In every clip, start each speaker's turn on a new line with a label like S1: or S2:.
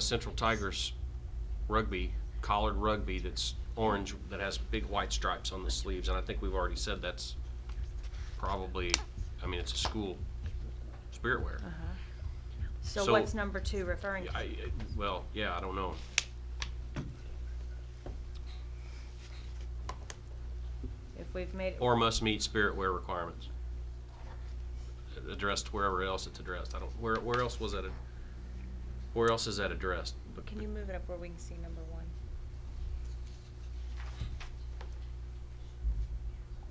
S1: Central Tigers rugby, collared rugby that's orange, that has big white stripes on the sleeves, and I think we've already said that's probably, I mean, it's a school spirit wear.
S2: So
S1: So-
S2: what's number two referring to?
S1: I, I- well, yeah, I don't know.
S2: If we've made, it
S1: Or must meet spirit wear requirements. Addressed wherever else it's addressed, I don't, where, where else was that, ad- where else is that addressed?
S2: can you move it up where we can see number one?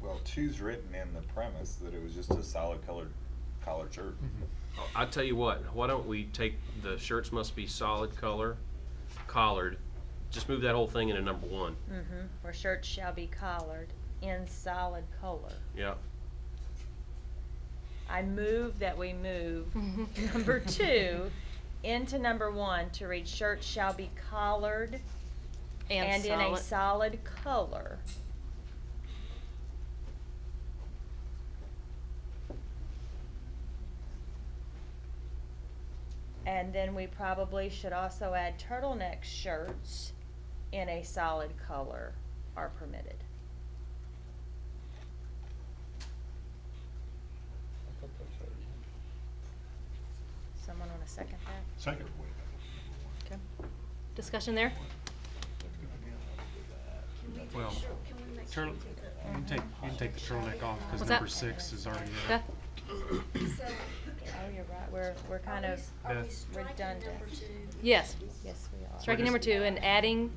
S3: Well, two's written in the premise that it was just a solid colored collared shirt.
S1: I tell you what, why don't we take the shirts must be solid color, collared, just move that whole thing into number one.
S2: Mm-hmm. Where shirts shall be collared in solid color.
S1: Yeah.
S2: I move that we move number two into number one to read shirts shall be collared and in a solid color. And then we probably should also add turtleneck shirts in a solid color are permitted. Someone wanna second that?
S4: Second.
S5: Okay. Discussion there?
S6: Well, turtle, you can take,
S2: Uh-huh.
S6: you can take the turtleneck off,
S5: What's
S6: cause
S5: that?
S6: number six is already there.
S5: Okay.
S2: Oh, you're right, we're, we're kind of,
S6: Beth.
S2: redundant.
S5: Yes.
S2: yes, we are.
S5: Striking number two and adding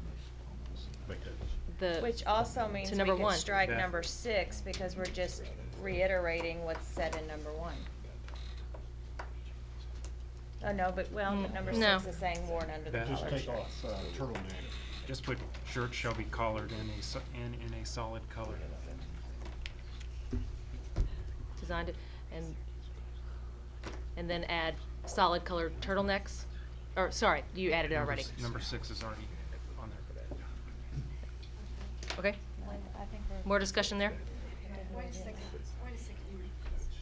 S5: the,
S2: Which also means we
S5: number
S2: could
S5: one.
S2: strike
S6: Yeah.
S2: number six, because we're just reiterating what's said in number one. Oh, no, but, well,
S5: Mm,
S2: number
S5: no.
S2: six is saying worn under the
S6: That-
S2: collar
S4: Just take
S2: shirt.
S4: off uh, turtleneck.
S6: Just put shirts shall be collared in a, so- in, in a solid color.
S5: designed it, and, and then add solid colored turtlenecks? Or, sorry, you added it
S6: Number
S5: already.
S6: s- Number six is already on there.
S5: Okay.
S2: I think we're-
S5: More discussion there?
S7: Wait a second, wait a second.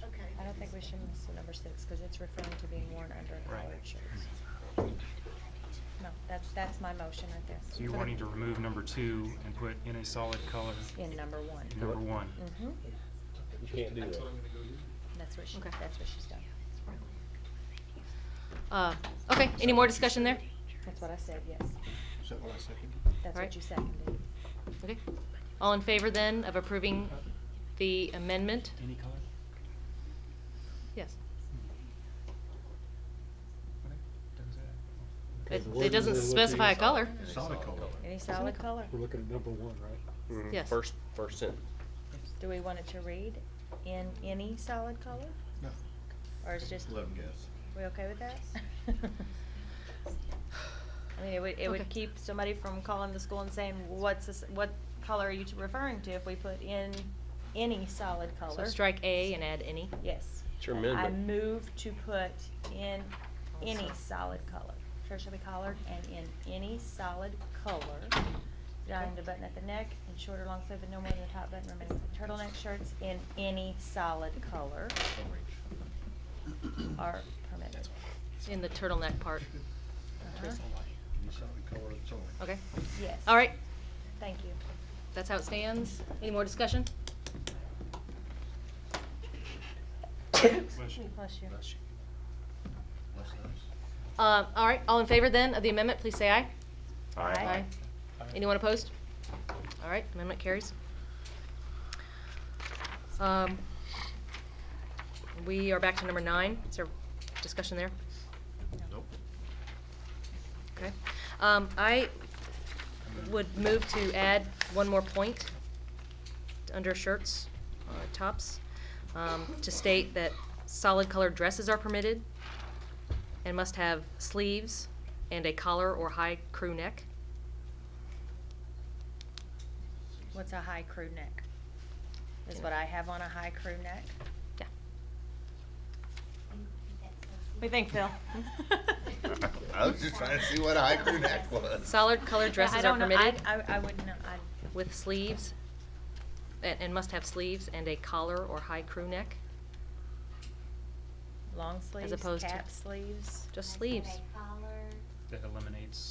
S7: Okay.
S2: I don't think we should miss number six, because it's referring to being worn under a
S6: Right.
S2: collared shirt. No, that's, that's my motion right there.
S6: So you're wanting to remove number two and put in a solid color
S2: In number one.
S6: in number one.
S2: Mm-hmm, that's what she,
S5: Okay.
S2: that's what she's done.
S5: Uh, okay, any more discussion there?
S2: That's what I said, yes.
S4: Is that what I seconded?
S2: That's
S5: Right.
S2: what you seconded.
S5: Okay. All in favor then of approving the amendment?
S6: Any color?
S5: Yes.
S6: Okay, does that-
S5: It, it doesn't specify a color.
S4: Solid color.
S2: Any solid color?
S8: looking at number one, right?
S5: Yes.
S1: First, first sentence.
S2: Do we want it to read in any solid color?
S4: No.
S2: Or is just,
S4: Let 'em guess.
S2: we okay with that? I mean, it would, it would
S5: Okay.
S2: keep somebody from calling the school and saying, what's this, what color are you t- referring to if we put in any solid
S5: So
S2: color?
S5: strike A and add any.
S2: Yes.
S1: It's your amendment.
S2: I move to put in any
S5: Also.
S2: solid color. Shirt shall be collared and in any solid color. Down the button at the neck and shorter long sleeve and no more than the top button remains the turtleneck shirts in any solid color are permitted.
S5: in the turtleneck part.
S2: Uh-huh.
S4: You saw the color, it's on.
S5: Okay.
S2: Yes.
S5: All right.
S2: Thank you.
S5: That's how it stands. Any more discussion?
S2: Bless you.
S5: Uh, all right. All in favor then of the amendment, please say aye.
S2: Aye.
S5: Anyone opposed? All right. Amendment carries. Um, we are back to number nine. Is there discussion there?
S4: Nope.
S5: Okay. Um, I would move to add one more point under shirts, uh, tops, um, to state that solid colored dresses are permitted and must have sleeves and a collar or high crew neck.
S2: What's a high crew neck? Is what I have on a high crew neck?
S5: Yeah.
S2: We think, Phil?
S3: I was just trying to see what a high crew neck was.
S5: Solid colored dresses are permitted
S2: I, I wouldn't, know. I,
S5: with sleeves, and, and must have sleeves and a collar or high crew neck,
S2: long sleeves,
S5: opposed to-
S2: cap sleeves.
S5: just sleeves.
S7: Collar,
S6: that eliminates